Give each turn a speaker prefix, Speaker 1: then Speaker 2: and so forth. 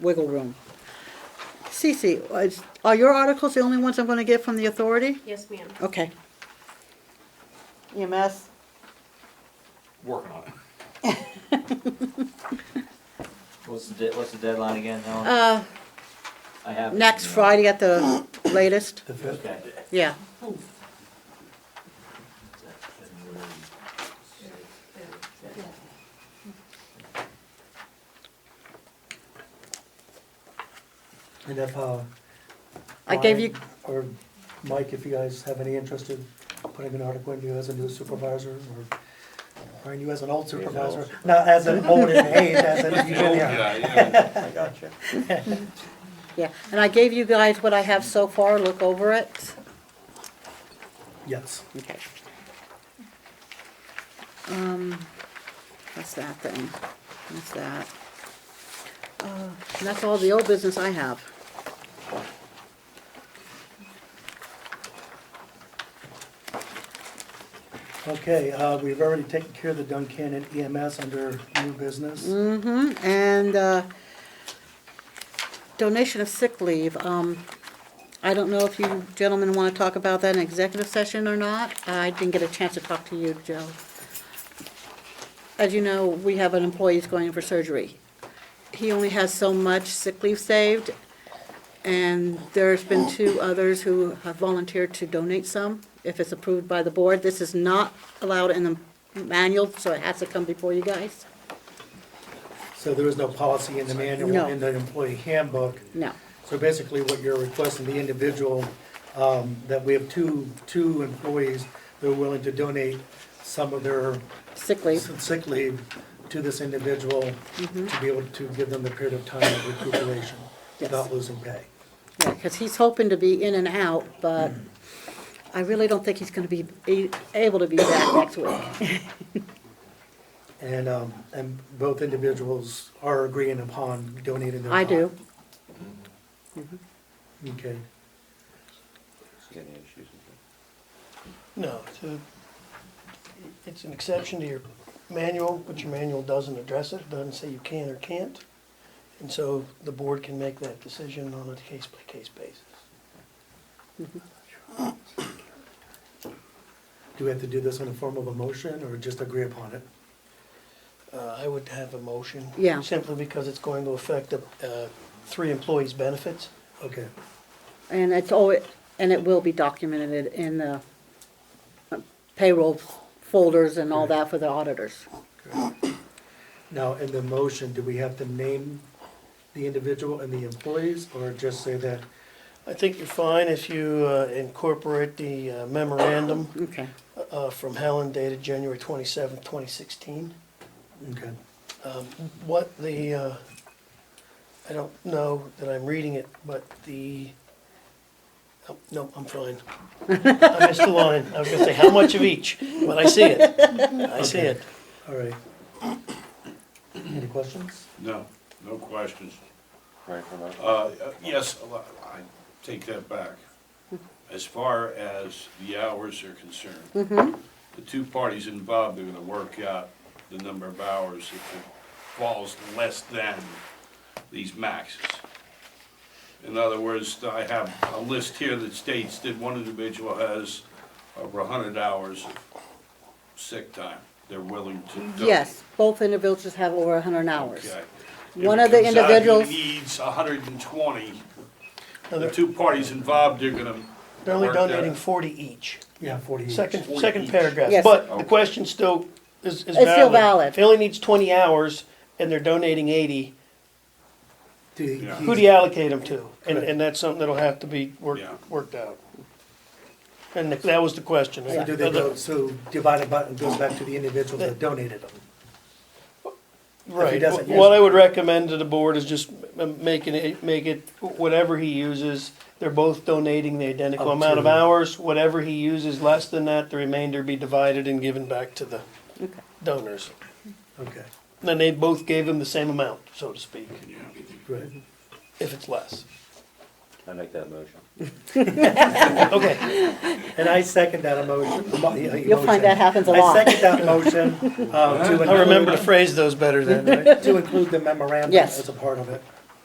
Speaker 1: wiggle room. Cece, is- are your articles the only ones I'm gonna get from the authority?
Speaker 2: Yes, ma'am.
Speaker 1: Okay. EMS?
Speaker 3: Working on it.
Speaker 4: What's the, de- what's the deadline again, Helen?
Speaker 1: Uh,
Speaker 4: I have.
Speaker 1: next Friday at the latest,
Speaker 4: Okay.
Speaker 1: yeah.
Speaker 5: And if, uh.
Speaker 1: I gave you,
Speaker 5: Ryan Or Mike, if you guys have any interest in putting an article in you as a new supervisor, or, or in you as an old supervisor, not as an old in age, as an, yeah.
Speaker 3: yeah.
Speaker 6: I gotcha.
Speaker 1: yeah, and I gave you guys what I have so far, look over it.
Speaker 5: Yes,
Speaker 1: Okay. Um, that's that then, that's that. Uh, and that's all the old business I have.
Speaker 5: okay, uh, we've already taken care of the Duncan and EMS under new business.
Speaker 1: Mm-hmm, and, uh, donation of sick leave, um, I don't know if you gentlemen wanna talk about that in executive session or not. I didn't get a chance to talk to you, Joe. As you know, we have an employee who's going in for surgery. He only has so much sick leave saved, and there's been two others who have volunteered to donate some, if it's approved by the board. This is not allowed in the manual, so it has to come before you guys.
Speaker 5: So there is no policy in the manual,
Speaker 1: No.
Speaker 5: in the employee handbook.
Speaker 1: No.
Speaker 5: So basically, what you're requesting, the individual, um, that we have two, two employees that are willing to donate some of their
Speaker 1: sick leave.
Speaker 5: some sick leave to this individual
Speaker 1: Mm-hmm.
Speaker 5: to be able to give them the period of time of recuperation
Speaker 1: Yes.
Speaker 5: without losing pay.
Speaker 1: Because he's hoping to be in and out, but I really don't think he's going to be a- able to be back next week.
Speaker 5: And, um, and both individuals are agreeing upon donating their
Speaker 1: I
Speaker 5: time.
Speaker 1: do.
Speaker 5: Okay,
Speaker 6: Any issues with
Speaker 7: No, it's a, it's an exception to your manual, but your manual doesn't address it, It doesn't say you can or can't. And so the board can make that decision on a case-by-case basis.
Speaker 5: do we have to do this in the form of a motion or just agree upon it?
Speaker 7: Uh, I would have a motion.
Speaker 1: Yeah.
Speaker 7: Simply because it's going to affect the, uh, three employees' benefits.
Speaker 5: Okay,
Speaker 1: And it's all, and it will be documented in the uh, payroll folders and all that for the auditors.
Speaker 5: now, in the motion, do we have to name the individual and the employees or just say that?
Speaker 7: I think you're fine if you uh, incorporate the uh, memorandum
Speaker 1: Okay.
Speaker 7: uh, from Helen dated January twenty-seventh, twenty sixteen.
Speaker 5: Okay,
Speaker 7: Um, What the, uh, I don't know that I'm reading it, but the, oh, no, I'm fine. I missed the line. I was gonna say, how much of each? But I see it. I see it.
Speaker 5: all right. Any questions?
Speaker 3: No, no questions.
Speaker 6: that? Right, hold on.
Speaker 3: Uh, yes, a lot- I take that back. As far as the hours are concerned, the two parties involved are gonna work out the number of hours if it falls less than these maxes. In other words, I have a list here that states that one individual has over hundred hours of sick time. They're willing to donate.
Speaker 1: Yes, both individuals have over 100 hours.
Speaker 3: Okay.
Speaker 1: One
Speaker 3: If
Speaker 1: of the
Speaker 3: it comes out he
Speaker 1: individuals-
Speaker 3: Needs hundred and twenty.
Speaker 7: No,
Speaker 3: The
Speaker 7: They're
Speaker 3: two parties involved, they're gonna.
Speaker 7: they're only
Speaker 3: work that
Speaker 7: donating
Speaker 3: out.
Speaker 7: forty each.
Speaker 5: Yeah, forty uh, each.
Speaker 7: Second,
Speaker 3: Forty
Speaker 7: second
Speaker 3: each.
Speaker 7: paragraph.
Speaker 1: Yes.
Speaker 7: But the
Speaker 3: Okay.
Speaker 7: question still is, is valid.
Speaker 1: It's still valid.
Speaker 7: If he only needs twenty hours and they're donating eighty,
Speaker 5: Do you-
Speaker 3: Yeah.
Speaker 7: who do you allocate them to? And,
Speaker 5: Correct.
Speaker 7: and that's something that'll have to be
Speaker 3: Yeah.
Speaker 7: worked, worked out. And that was the question.
Speaker 5: So do they go, so divided by, it goes back to the individual that donated them?
Speaker 7: Right,
Speaker 5: doesn't
Speaker 7: Wh- what
Speaker 5: use
Speaker 7: I would recommend to the board is just m- making it, make it whatever he uses, they're both donating the identical
Speaker 5: Up
Speaker 7: amount of
Speaker 5: to-
Speaker 7: hours, whatever he uses less than that, the remainder be divided and given back to the
Speaker 1: Okay.
Speaker 7: donors.
Speaker 5: Okay,
Speaker 7: Then they both gave him the same amount, so to speak,
Speaker 5: great.
Speaker 7: if it's less.
Speaker 6: I make that motion.
Speaker 7: Okay,
Speaker 5: And I second that emotion. emo- yeah,
Speaker 1: You'll find that
Speaker 5: emotion.
Speaker 1: happens a
Speaker 5: I
Speaker 1: lot.
Speaker 5: second that motion, um, to
Speaker 7: I remember to
Speaker 5: include,
Speaker 7: phrase those better then, right?
Speaker 5: to include the memorandum
Speaker 1: Yes.
Speaker 5: as a part of it.